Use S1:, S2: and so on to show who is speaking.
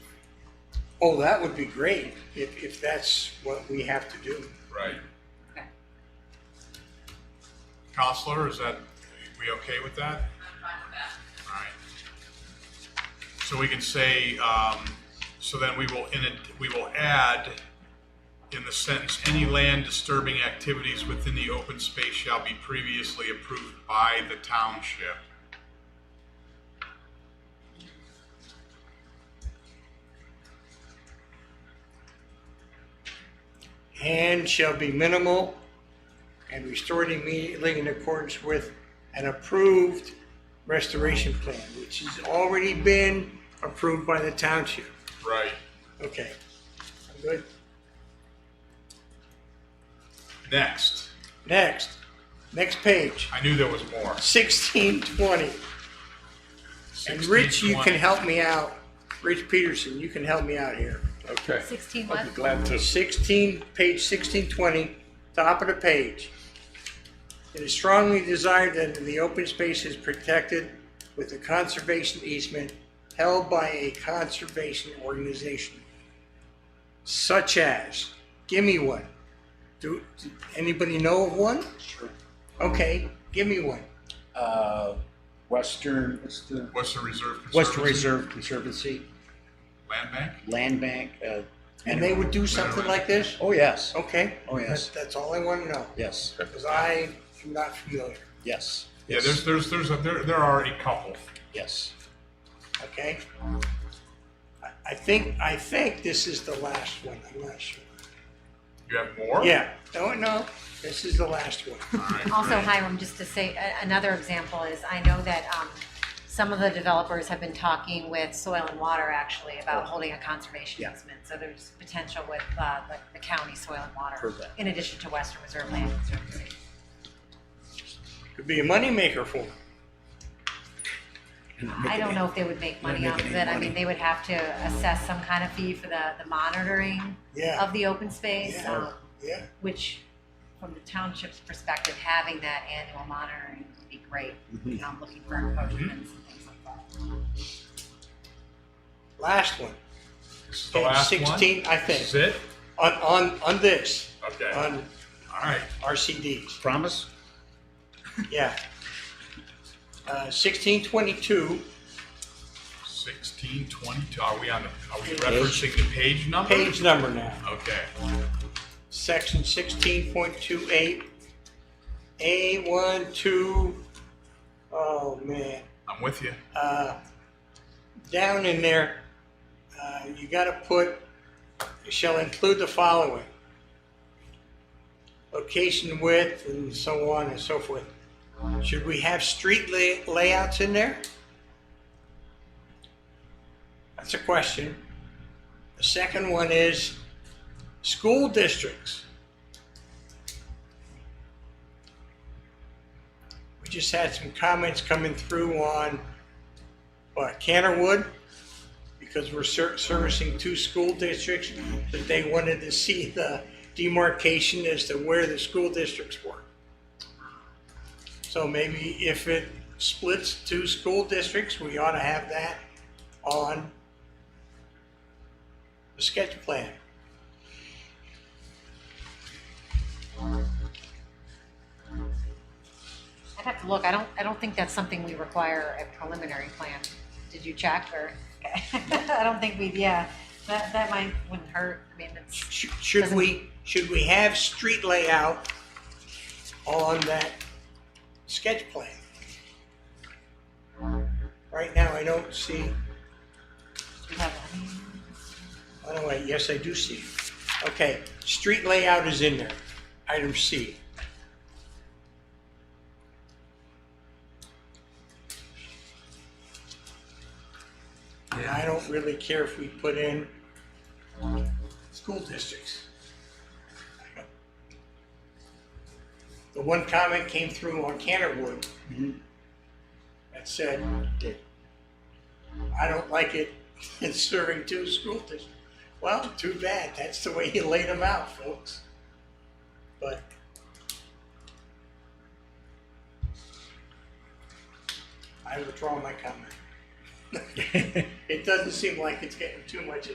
S1: Oh, that would be great, if, if that's what we have to do.
S2: Right.
S3: Okay.
S2: Counselor, is that, we okay with that?
S3: I'm fine with that.
S2: All right. So we can say, um, so then we will, in it, we will add in the sentence, any land disturbing activities within the open space shall be previously approved by the township.
S1: And shall be minimal and restored immediately in accordance with an approved restoration plan, which has already been approved by the township.
S2: Right.
S1: Okay, I'm good.
S2: Next.
S1: Next, next page,
S2: I knew there was more.
S1: sixteen twenty. And Rich, you can help me out. Rich Peterson, you can help me out here.
S4: Okay.
S3: 16
S4: I'd be
S3: left.
S4: glad to.
S1: Sixteen, page sixteen twenty, top of the page. It is strongly desired that the open space is protected with a conservation easement held by a conservation organization. Such as, give me one. Do, do anybody know of one?
S4: Sure.
S1: Okay, give me one.
S4: Uh, Western, what's the,
S2: Western Reserve Conservancy.
S4: Western Reserve Conservancy
S2: Land Bank?
S4: Land Bank. uh,
S1: And they would do something like this?
S4: Oh, yes.
S1: Okay.
S4: Oh, yes.
S1: That- That's all I want to know,
S4: Yes,
S1: because I am not familiar,
S4: yes.
S2: Yeah, there's,
S4: yes,
S2: there's, there's, a- there, there are a couple.
S4: Yes.
S1: okay? I- I think, I think this is the last one, I'm not sure.
S2: You have more?
S1: Yeah, don't know, this is the last one.
S2: All right,
S3: Also,
S2: great.
S3: Hiram, just to say, a- another example is, I know that um, some of the developers have been talking with Soil and Water actually about holding a conservation
S4: Yeah.
S3: easement. So there's potential with uh, the- the county Soil and Water,
S4: Heard that.
S3: in addition to Western Reserve Land Conservancy.
S1: Could be a moneymaker for them.
S3: I don't know if they would make money
S4: Not
S3: off of
S4: making
S3: it.
S4: any
S3: I
S4: money.
S3: mean, they would have to assess some kind of fee for the the monitoring
S1: Yeah.
S3: of the open space.
S1: Yeah.
S3: um,
S1: Yeah,
S3: which from the township's perspective, having that annual monitoring would be great. You
S4: Mm-hmm.
S3: know, I'm looking for encroachments and things like that.
S1: last one.
S2: This is the last one?
S1: Sixteen, I
S2: This is
S1: think,
S2: it?
S1: on, on, on this,
S2: Okay, all
S1: on
S2: right.
S1: RCDs,
S4: Promise?
S1: yeah. Uh, sixteen twenty-two,
S2: Sixteen twenty-two, are we on, the? are we referencing the page number?
S1: page number now.
S2: Okay,
S1: section sixteen point two eight, A one, two, oh man,
S2: I'm with you.
S1: uh, down in there, uh, you gotta put, shall include the following. Location width and so on and so forth. Should we have street lay- layouts in there? That's a question. The second one is school districts. We just had some comments coming through on what, Cannerwood, because we're ser- servicing two school districts, that they wanted to see the demarcation as to where the school districts were. So maybe if it splits two school districts, we ought to have that on the sketch plan.
S3: I'd have to look. I don't, I don't think that's something we require a preliminary plan. Did you check or? I don't think we, yeah, that, that might, wouldn't hurt. I mean, it's,
S1: Sh- Should we, should we have street layout on that sketch plan? Right now, I don't see,
S3: we have,
S1: oh, no, wait, yes, I do see. it. Okay, street layout is in there, item C. And I don't really care if we put in school districts. The one comment came through on Canterwood that said, I don't like it in serving two school districts. Well, too bad, that's the way you laid them out, folks. But I withdraw my comment. It doesn't seem like it's getting too much